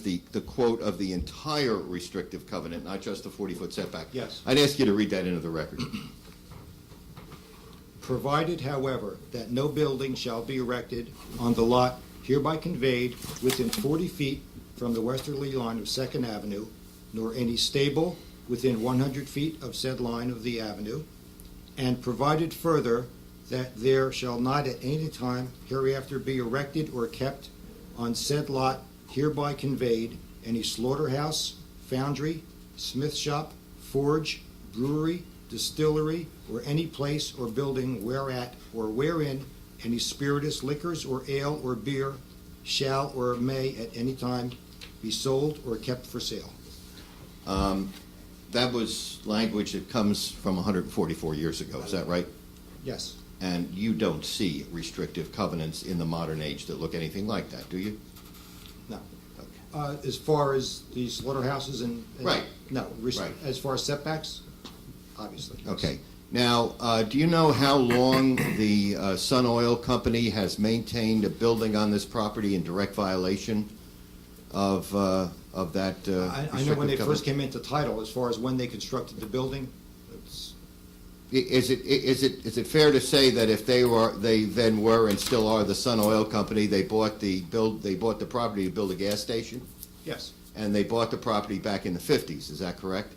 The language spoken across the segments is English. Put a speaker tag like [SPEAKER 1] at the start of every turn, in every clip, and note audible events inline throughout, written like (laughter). [SPEAKER 1] the, the quote of the entire restrictive covenant, not just the 40-foot setback.
[SPEAKER 2] Yes.
[SPEAKER 1] I'd ask you to read that into the record. (clears throat)
[SPEAKER 2] Provided, however, that no building shall be erected on the lot hereby conveyed within forty feet from the westerly line of Second Avenue, nor any stable within one hundred feet of said line of the avenue, and provided further that there shall not at any time hereafter be erected or kept on said lot hereby conveyed any slaughterhouse, foundry, smith shop, forge, brewery, distillery, or any place or building whereat or wherein any spirituous liquors or ale or beer shall or may at any time be sold or kept for sale.
[SPEAKER 1] That was language that comes from 144 years ago, is that right?
[SPEAKER 2] Yes,
[SPEAKER 1] And you don't see restrictive covenants in the modern age that look anything like that, do you?
[SPEAKER 2] no. Uh, as far as the slaughterhouses and. and-
[SPEAKER 1] Right.
[SPEAKER 2] No, res-
[SPEAKER 1] Right.
[SPEAKER 2] as far as setbacks, obviously. yes.
[SPEAKER 1] Okay. Now, uh, do you know how long (coughs) the uh, Sun Oil Company has maintained a building on this property in direct violation of, uh, of that uh,
[SPEAKER 2] I, I know
[SPEAKER 1] restrictive
[SPEAKER 2] when they
[SPEAKER 1] covenant?
[SPEAKER 2] first came into title, as far as when they constructed the building, it's,
[SPEAKER 1] I- Is it, i- is it, is it fair to say that if they were, they then were and still are the Sun Oil Company, they bought the build, they bought the property to build a gas station?
[SPEAKER 2] yes.
[SPEAKER 1] And they bought the property back in the fifties, is that correct?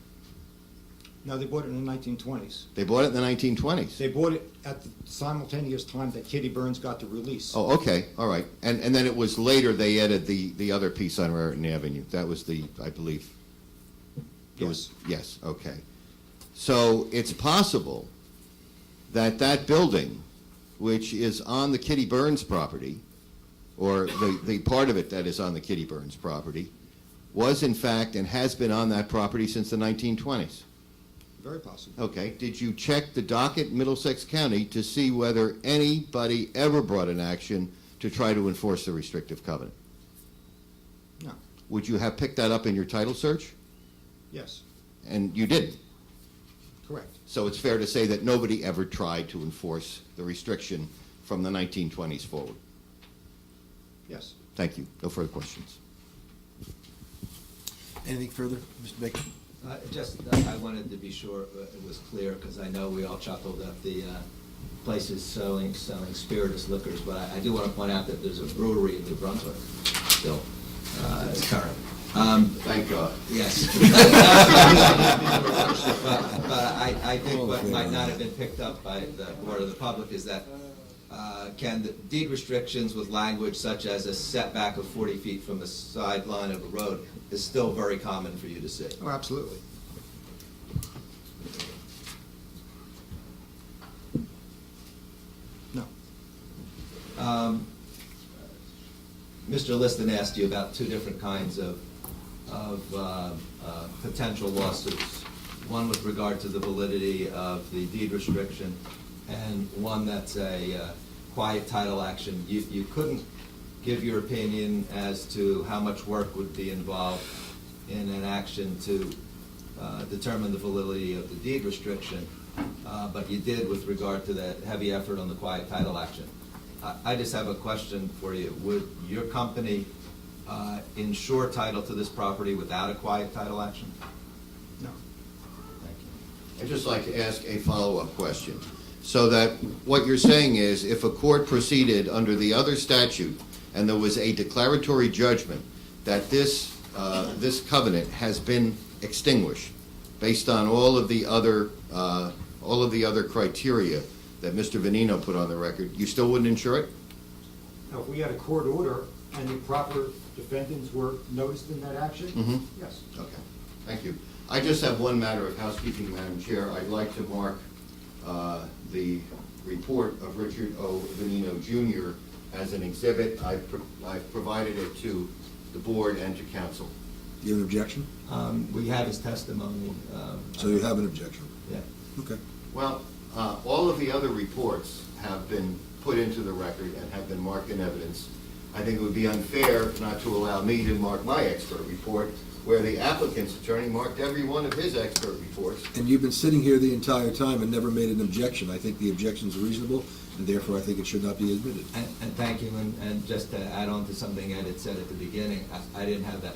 [SPEAKER 2] No, they bought it in the nineteen twenties.
[SPEAKER 1] They bought it in the nineteen twenties?
[SPEAKER 2] They bought it at the simultaneous time that Kitty Burns got the release.
[SPEAKER 1] Oh, okay, all right. And, and then it was later they added the, the other piece on Raritan Avenue. That was the, I believe, It was, yes,
[SPEAKER 2] Yes.
[SPEAKER 1] okay. So it's possible that that building, which is on the Kitty Burns property, or the, the part of it that is on the Kitty Burns property, was in fact and has been on that property since the 1920s.
[SPEAKER 2] Very possible.
[SPEAKER 1] Okay, did you check the docket in Middlesex County to see whether anybody ever brought an action to try to enforce the restrictive covenant?
[SPEAKER 2] No,
[SPEAKER 1] Would you have picked that up in your title search?
[SPEAKER 2] yes,
[SPEAKER 1] And you didn't.
[SPEAKER 2] correct.
[SPEAKER 1] So it's fair to say that nobody ever tried to enforce the restriction from the 1920s forward.
[SPEAKER 2] Yes.
[SPEAKER 1] Thank you. No further questions.
[SPEAKER 3] Anything further, Mr. Baker?
[SPEAKER 4] Uh, Just, uh, I wanted to be sure uh, it was clear, because I know we all chuckled at the uh, places selling, selling spirituous liquors, but I I do want to point out that there's a brewery in New Brunswick still, uh, it's current.
[SPEAKER 1] Thank God.
[SPEAKER 4] Yes. But but I, I think what might not have been picked up by the board of the public is that, uh, can the deed restrictions with language such as a setback of 40 feet from the sideline of a road is still very common for you to see.
[SPEAKER 2] Oh, absolutely. No,
[SPEAKER 4] Mr. Liston asked you about two different kinds of, of uh, uh, potential lawsuits. One with regard to the validity of the deed restriction, and one that's a uh, quiet title action. You, you couldn't give your opinion as to how much work would be involved in an action to uh, determine the validity of the deed restriction, uh, but you did with regard to that heavy effort on the quiet title action. I- I just have a question for you. Would your company uh, insure title to this property without a quiet title action?
[SPEAKER 2] no.
[SPEAKER 4] Thank you.
[SPEAKER 1] I'd just like to ask a follow-up question. So that what you're saying is if a court proceeded under the other statute and there was a declaratory judgment that this, uh, this covenant has been extinguished based on all of the other, uh, all of the other criteria that Mr. Venino put on the record, you still wouldn't insure it?
[SPEAKER 2] Now, if we had a court order and the proper defendants were noticed in that action, yes.
[SPEAKER 1] Okay, thank you. I just have one matter of housekeeping, Madam Chair. I'd like to mark uh, the report of Richard O. Venino Jr. as an exhibit. I've pro- I've provided it to the board and to council.
[SPEAKER 3] Do you have an objection?
[SPEAKER 4] Um, We have his testimony. um,
[SPEAKER 3] So you have an objection?
[SPEAKER 4] Yeah.
[SPEAKER 3] Okay.
[SPEAKER 1] Well, uh, all of the other reports have been put into the record and have been marked in evidence. I think it would be unfair not to allow me to mark my expert report, where the applicant's attorney marked every one of his expert reports.
[SPEAKER 3] And you've been sitting here the entire time and never made an objection. I think the objection's reasonable, and therefore I think it should not be admitted.
[SPEAKER 4] And and thank you, and and just to add on to something Ed had said at the beginning, I I didn't have that